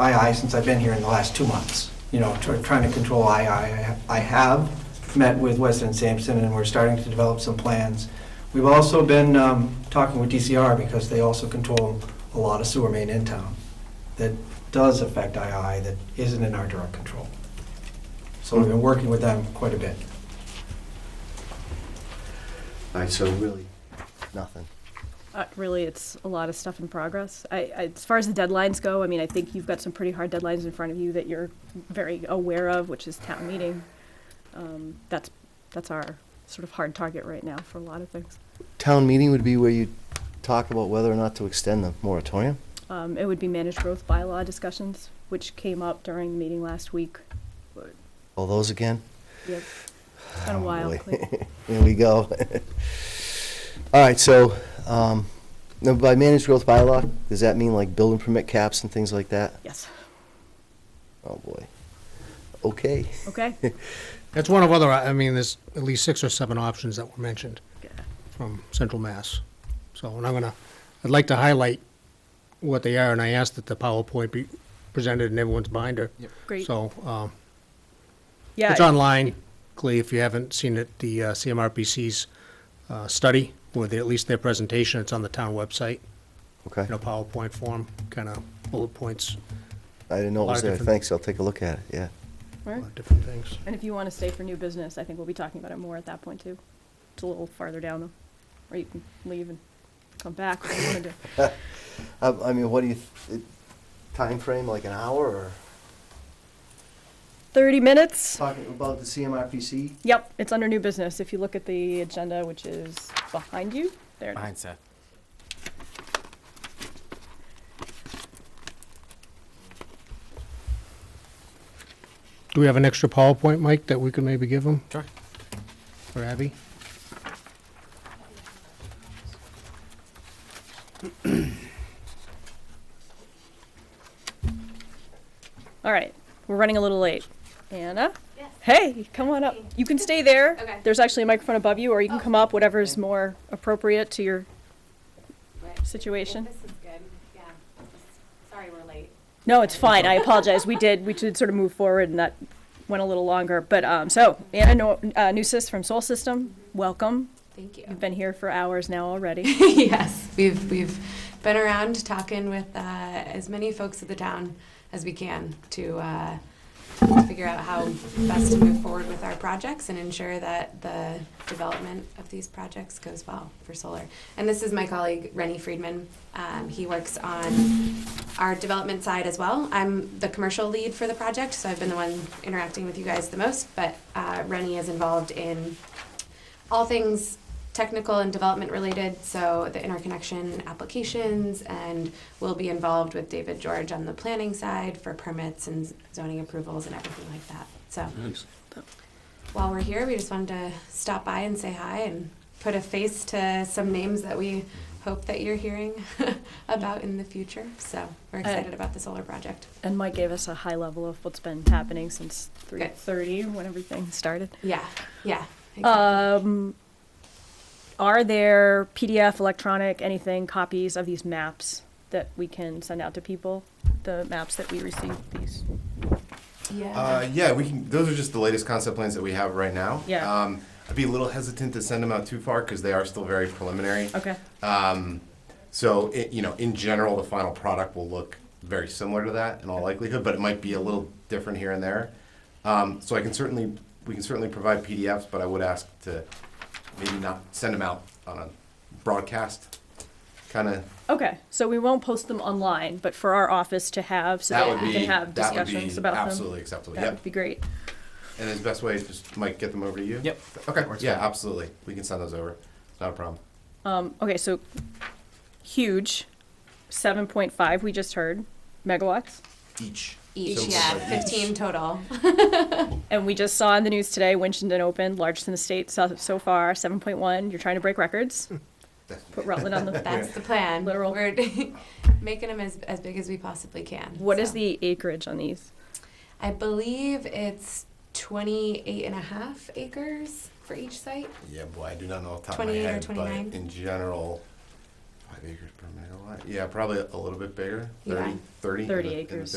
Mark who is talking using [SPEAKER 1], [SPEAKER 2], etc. [SPEAKER 1] II since I've been here in the last two months, you know, tr- trying to control II. I I have met with Weston and Sampson, and we're starting to develop some plans. We've also been um, talking with DCR because they also control a lot of sewer main in town that does affect II that isn't in our direct control. So we've been working with them quite a bit.
[SPEAKER 2] All right, so really, nothing.
[SPEAKER 3] Uh, really, it's a lot of stuff in progress. I, I, as far as the deadlines go, I mean, I think you've got some pretty hard deadlines in front of you that you're very aware of, which is town meeting. Um, that's that's our sort of hard target right now for a lot of things.
[SPEAKER 2] Town meeting would be where you talk about whether or not to extend the moratorium?
[SPEAKER 3] Um, it would be managed growth bylaw discussions, which came up during the meeting last week.
[SPEAKER 2] All those again?
[SPEAKER 3] Yep. It's been a while.
[SPEAKER 2] boy.
[SPEAKER 3] Cleve.
[SPEAKER 2] There we go. All right, so, um, now by managed growth bylaw, does that mean like building permit caps and things like that?
[SPEAKER 3] Yes.
[SPEAKER 2] Oh, boy. Okay.
[SPEAKER 3] Okay.
[SPEAKER 4] That's one of other, I mean, there's at least six or seven options that were mentioned from Central Mass. So, and I'm gonna, I'd like to highlight what they are, and I asked that the PowerPoint be presented in everyone's binder.
[SPEAKER 3] Great.
[SPEAKER 4] So, um,
[SPEAKER 3] yeah.
[SPEAKER 4] it's online, Glee, if you haven't seen it, the uh, CMRPC's uh, study, or the- at least their presentation, it's on the town website,
[SPEAKER 2] Okay.
[SPEAKER 4] in a PowerPoint form, kind of bullet points,
[SPEAKER 2] I didn't know it
[SPEAKER 4] lot
[SPEAKER 2] was
[SPEAKER 4] of
[SPEAKER 2] there.
[SPEAKER 4] different-
[SPEAKER 2] Thanks, I'll take a look at it, yeah.
[SPEAKER 3] All
[SPEAKER 4] a
[SPEAKER 3] right.
[SPEAKER 4] lot of uh, different things.
[SPEAKER 3] And if you want to stay for new business, I think we'll be talking about it more at that point too. It's a little farther down, or you can leave and come back. if you wanna do.
[SPEAKER 2] I, Uh, I mean, what do you, th- it- timeframe, like an hour or?
[SPEAKER 3] Thirty minutes.
[SPEAKER 2] Talking about the CMRPC?
[SPEAKER 3] Yep, it's under new business. If you look at the agenda, which is behind you, there. it is.
[SPEAKER 5] Behind Seth.
[SPEAKER 4] Do we have an extra PowerPoint, Mike, that we could maybe give them,
[SPEAKER 5] Sure.
[SPEAKER 4] or Abby?
[SPEAKER 3] All right, we're running a little late. Anna? Hey, come on up. You can stay there.
[SPEAKER 6] Okay.
[SPEAKER 3] There's actually a microphone above you, or you can come up, whatever's more appropriate to your situation.
[SPEAKER 6] This is good, yeah. Sorry we're late.
[SPEAKER 3] No, it's fine. I apologize. We did, we did sort of move forward and that went a little longer. But, um, so Anna no- uh, Newsis from Soul System, welcome.
[SPEAKER 6] Thank you.
[SPEAKER 3] You've been here for hours now already.
[SPEAKER 6] Yes, we've, we've been around talking with uh, as many folks at the town as we can to uh, figure out how best to move forward with our projects and ensure that the development of these projects goes well for solar. And this is my colleague Rennie Friedman. Um, He works on our development side as well. I'm the commercial lead for the project, so I've been the one interacting with you guys the most, but uh, Rennie is involved in all things technical and development related, so the interconnection applications, and we'll be involved with David George on the planning side for permits and zoning approvals and everything like that. So while we're here, we just wanted to stop by and say hi and put a face to some names that we hope that you're hearing about in the future. So we're excited about the solar project.
[SPEAKER 3] And Mike gave us a high level of what's been happening since three
[SPEAKER 6] Good.
[SPEAKER 3] thirty when everything started.
[SPEAKER 6] Yeah, yeah. exactly.
[SPEAKER 3] Um, are there PDF, electronic, anything, copies of these maps that we can send out to people? The maps that we received, these?
[SPEAKER 6] yeah.
[SPEAKER 5] Uh, yeah, we can. Those are just the latest concept plans that we have right now.
[SPEAKER 3] Yeah.
[SPEAKER 5] Um, I'd be a little hesitant to send them out too far because they are still very preliminary.
[SPEAKER 3] Okay,
[SPEAKER 5] Um, so it, you know, in general, the final product will look very similar to that in all likelihood, but it might be a little different here and there. Um, so I can certainly, we can certainly provide PDFs, but I would ask to maybe not send them out on a broadcast kind of.
[SPEAKER 3] okay, so we won't post them online, but for our office to have, so
[SPEAKER 5] That
[SPEAKER 3] that
[SPEAKER 5] would
[SPEAKER 3] we
[SPEAKER 5] be
[SPEAKER 3] can have
[SPEAKER 5] that would be
[SPEAKER 3] discussions about them?
[SPEAKER 5] absolutely acceptable.
[SPEAKER 3] That
[SPEAKER 5] Yep.
[SPEAKER 3] would be great.
[SPEAKER 5] And his best way is just, Mike, get them over to you?
[SPEAKER 7] Yep.
[SPEAKER 5] Okay, yeah, absolutely. We can send those over. Not a problem.
[SPEAKER 3] Um, okay, so huge, seven point five, we just heard, megawatts.
[SPEAKER 5] Each.
[SPEAKER 6] each,
[SPEAKER 5] So,
[SPEAKER 6] yeah,
[SPEAKER 5] like, each.
[SPEAKER 6] 15 total.
[SPEAKER 3] And we just saw in the news today, Winchendon opened, largest in the state so, so far, seven point one. You're trying to break records. Put Rutland on the
[SPEAKER 6] That's the plan.
[SPEAKER 3] Literal.
[SPEAKER 6] We're making them as, as big as we possibly can.
[SPEAKER 3] What is
[SPEAKER 6] so.
[SPEAKER 3] the acreage on these?
[SPEAKER 6] I believe it's 28 and a half acres for each site.
[SPEAKER 5] Yeah, boy, I do not know off the top of my
[SPEAKER 6] 28 or
[SPEAKER 5] head, but
[SPEAKER 6] 29?
[SPEAKER 5] in general, five acres per megawatt. Yeah, probably a little bit bigger,
[SPEAKER 6] Yeah.
[SPEAKER 5] thirty, thirty.
[SPEAKER 3] 30
[SPEAKER 5] in the- in the
[SPEAKER 3] acres.